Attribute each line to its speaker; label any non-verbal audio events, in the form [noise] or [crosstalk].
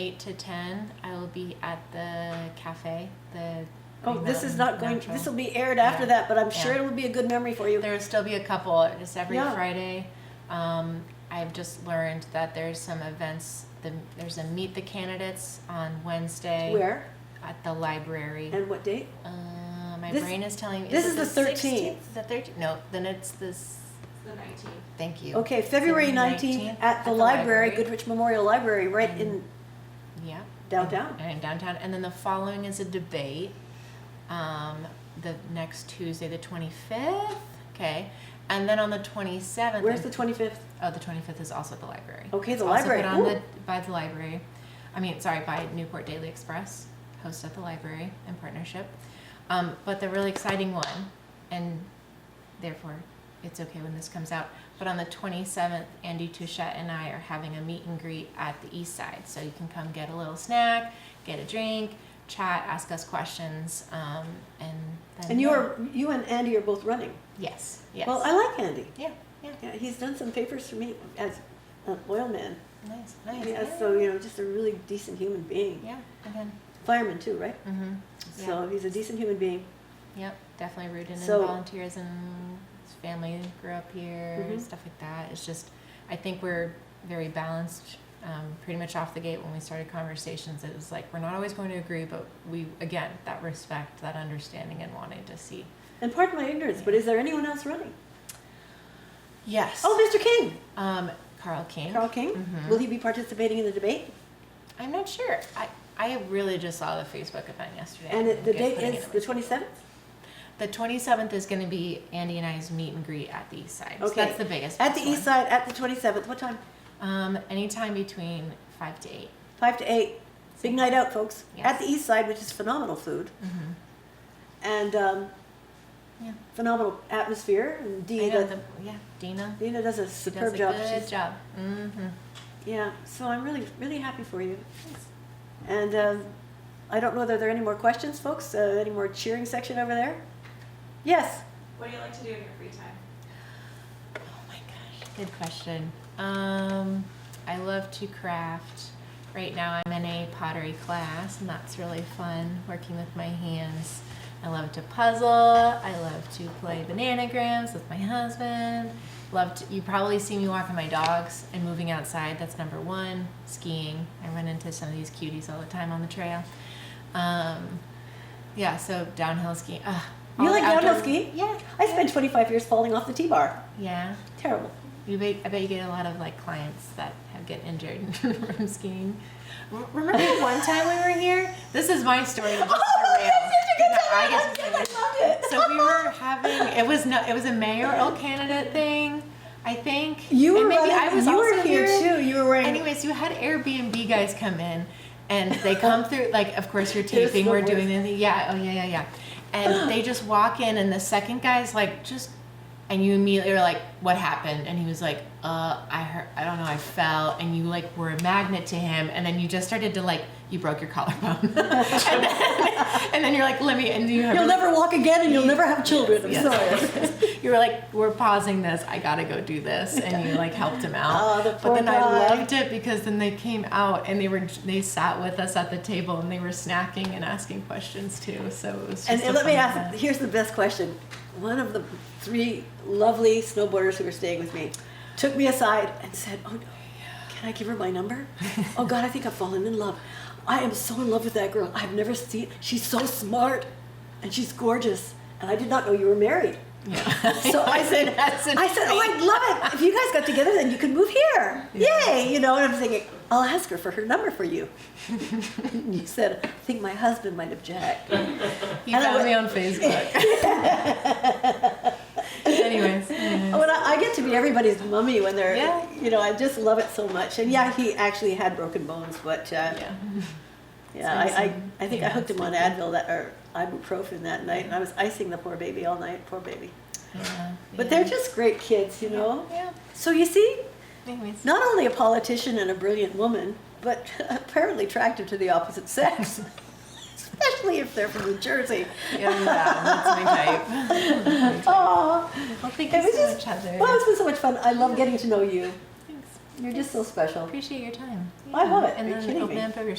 Speaker 1: eight to ten, I will be at the cafe. The
Speaker 2: Oh,
Speaker 1: Green
Speaker 2: this is
Speaker 1: Mountain
Speaker 2: not going,
Speaker 1: Natural.
Speaker 2: this will be aired after that, but I'm sure
Speaker 1: Yeah.
Speaker 2: it will be a good memory for you.
Speaker 1: There will still be a couple, just every
Speaker 2: Yeah.
Speaker 1: Friday. Um, I've just learned that there's some events. The, there's a meet the candidates on Wednesday
Speaker 2: Where
Speaker 1: at the library.
Speaker 2: and what date?
Speaker 1: Uh, my
Speaker 2: This-
Speaker 1: brain is telling me.
Speaker 2: this
Speaker 1: it
Speaker 2: is the 13th.
Speaker 1: 16th? The 13th? No, then it's this.
Speaker 3: The nineteenth.
Speaker 1: Thank you.
Speaker 2: Okay, February
Speaker 1: the
Speaker 2: 19th at the library, Goodrich Memorial Library, right in
Speaker 1: Yeah.
Speaker 2: downtown.
Speaker 1: and in downtown. And then the following is a debate. Um, the next Tuesday, the twenty fifth. Okay, and then on the twenty seventh.
Speaker 2: Where's the 25th?
Speaker 1: Oh, the twenty fifth is also at the library.
Speaker 2: Okay,
Speaker 1: It's
Speaker 2: the
Speaker 1: also
Speaker 2: library.
Speaker 1: Put on
Speaker 2: Ooh.
Speaker 1: the by the library. I mean, sorry, by Newport Daily Express, hosted at the library in partnership. Um, but the really exciting one, and therefore, it's okay when this comes out. But on the twenty seventh, Andy Touchette and I are having a meet and greet at the East Side, so you can come get a little snack, get a drink, chat, ask us questions, um, and then.
Speaker 2: And you are, you and Andy are both running.
Speaker 1: Yes. Yes.
Speaker 2: Well, I like Andy.
Speaker 1: yeah. Yeah.
Speaker 2: Yeah, he's done some papers for me as an oil man.
Speaker 1: Nice. Nice.
Speaker 2: Yeah, so, you know, just a really decent human being.
Speaker 1: Yeah. Again.
Speaker 2: Fireman too, right?
Speaker 1: Mm-hmm.
Speaker 2: So he's a decent human being.
Speaker 1: Yep, definitely rooted
Speaker 2: So-
Speaker 1: in volunteers and his family grew up here,
Speaker 2: Mhm.
Speaker 1: stuff like that. It's just, I think we're very balanced. Um, pretty much off the gate when we started conversations, it was like we're not always going to agree, but we again that respect, that understanding, and wanting to see.
Speaker 2: And pardon my ignorance, but is there anyone else running?
Speaker 1: Yes.
Speaker 2: Oh, Mr. King,
Speaker 1: um, Carl King.
Speaker 2: Carl King.
Speaker 1: Mhm.
Speaker 2: Will he be participating in the debate?
Speaker 1: I'm not sure. I I really just saw the Facebook event yesterday.
Speaker 2: And it- the
Speaker 1: Guess
Speaker 2: date
Speaker 1: putting
Speaker 2: is
Speaker 1: it
Speaker 2: the
Speaker 1: in-
Speaker 2: twenty-seventh?
Speaker 1: the 27th is going to be Andy and I's meet and greet at the East Side. So
Speaker 2: Okay.
Speaker 1: that's the biggest.
Speaker 2: At the
Speaker 1: one.
Speaker 2: east side, at the twenty-seventh, what time?
Speaker 1: Um, anytime between five to 8
Speaker 2: Five to eight. Big night out, folks. At
Speaker 1: Yes.
Speaker 2: the east side, which is phenomenal food
Speaker 1: Mm-hmm.
Speaker 2: and um,
Speaker 1: Yeah.
Speaker 2: phenomenal atmosphere. And
Speaker 1: I know
Speaker 2: Dina,
Speaker 1: the, yeah, Dina
Speaker 2: Dina does a
Speaker 1: does
Speaker 2: superb
Speaker 1: a
Speaker 2: job.
Speaker 1: Good
Speaker 2: She's-
Speaker 1: job. Mm-hmm.
Speaker 2: Yeah, so I'm really, really happy for you. And um, I don't know, are there any more questions, folks? Uh, Any more cheering section over there? Yes,
Speaker 3: What do you like to do in your free time?
Speaker 1: Oh my gosh, good question. Um, I love to craft. Right now, I'm in a pottery class, and that's really fun. Working with my hands. I love to puzzle. I love to play bananagrams with my husband. Love to, you probably see me walking my dogs and moving outside. That's number one. Skiing. I run into some of these cuties all the time on the trail. Um, yeah, so downhill skiing. Ugh, all
Speaker 2: You
Speaker 1: the
Speaker 2: like downhill
Speaker 1: outdoor-
Speaker 2: ski?
Speaker 1: Yeah.
Speaker 2: I spent 25 years falling off the T-bar.
Speaker 1: Yeah.
Speaker 2: Terrible.
Speaker 1: You bet, I bet you get a lot of like clients that have get injured [laughs] from skiing. R- Remember one time we were here? This is my
Speaker 2: [laughs]
Speaker 1: story. This is
Speaker 2: Oh,
Speaker 1: derailed. No, I guess it's like- so we were having it was no it was a mayoral candidate thing, I think.
Speaker 2: You were
Speaker 1: and maybe
Speaker 2: running-
Speaker 1: I was
Speaker 2: you
Speaker 1: also
Speaker 2: were here, too. You were wearing.
Speaker 1: Anyways, you had Airbnb guys come in, and they come through. Like, of course, you're
Speaker 2: It's
Speaker 1: taping.
Speaker 2: the
Speaker 1: We're doing this. Yeah. Oh yeah, yeah, yeah. And they just walk in, and the second guy's like, just, and you immediately are like, what happened? And he was like, uh, I heard, I don't know, I fell, and you like were a magnet to him, and then you just started to like, you broke your collarbone, [laughs] and, then, and then you're like, let me, and you have
Speaker 2: You'll never walk again, and you'll never have children. I'm
Speaker 1: Yes.
Speaker 2: [laughs] sorry.
Speaker 1: you were like, we're pausing this. I gotta go do this, and you like helped him out.
Speaker 2: Oh, the
Speaker 1: but
Speaker 2: poor
Speaker 1: then
Speaker 2: guy.
Speaker 1: I loved it because then they came out and they were they sat with us at the table and they were snacking and asking questions too. So it was. Just
Speaker 2: And,
Speaker 1: a
Speaker 2: and let me
Speaker 1: fun
Speaker 2: ask. [laughs]
Speaker 1: event.
Speaker 2: Here's the best question. One of the three lovely snowboarders who were staying with me took me aside and said, "Oh no, can I give her my [laughs] number? oh God, I think I've fallen in love. I am so in love with that girl. I've never seen. She's so smart, and she's gorgeous. And I did not know you were married.
Speaker 1: Yeah.
Speaker 2: So I
Speaker 1: [laughs]
Speaker 2: said,
Speaker 1: That's
Speaker 2: I said, oh,
Speaker 1: amazing.
Speaker 2: I'd love it if you guys got together. Then you could move here.
Speaker 1: Yeah.
Speaker 2: Yay! You know, and I'm thinking, I'll ask her for her number for you. [laughs] and you said, I think my husband might object. [laughs]
Speaker 1: He
Speaker 2: and I
Speaker 1: found
Speaker 2: went-
Speaker 1: me on
Speaker 2: [laughs]
Speaker 1: Facebook. Anyways. anyways.
Speaker 2: When I, I get to be everybody's mummy when they're,
Speaker 1: Yeah.
Speaker 2: you know, I just love it so much. And yeah, he actually had broken bones, but uh, yeah,
Speaker 1: Yeah.
Speaker 2: I, I,
Speaker 1: Icing.
Speaker 2: I think I
Speaker 1: Yeah,
Speaker 2: hooked him
Speaker 1: it's
Speaker 2: on
Speaker 1: like that.
Speaker 2: Advil that or ibuprofen that night, and I was icing the poor baby all night, poor baby.
Speaker 1: Yeah.
Speaker 2: But
Speaker 1: yeah.
Speaker 2: they're just great kids, you know.
Speaker 1: Yeah.
Speaker 2: So you see,
Speaker 1: Anyways.
Speaker 2: not only a politician and a brilliant woman, but [laughs] apparently attracted to the opposite sex, [laughs] especially if they're from New Jersey.
Speaker 1: Yeah, that's my type.
Speaker 2: Aw. [laughs]
Speaker 1: Well, thank
Speaker 2: It
Speaker 1: you
Speaker 2: was
Speaker 1: so
Speaker 2: just,
Speaker 1: much, Heather.
Speaker 2: well, it's been so much fun. I love getting to know you.
Speaker 1: Thanks.
Speaker 2: You're just so special.
Speaker 1: Appreciate your time.
Speaker 2: I love it. Are
Speaker 1: And
Speaker 2: you
Speaker 1: then
Speaker 2: kidding
Speaker 1: open
Speaker 2: me?
Speaker 1: up your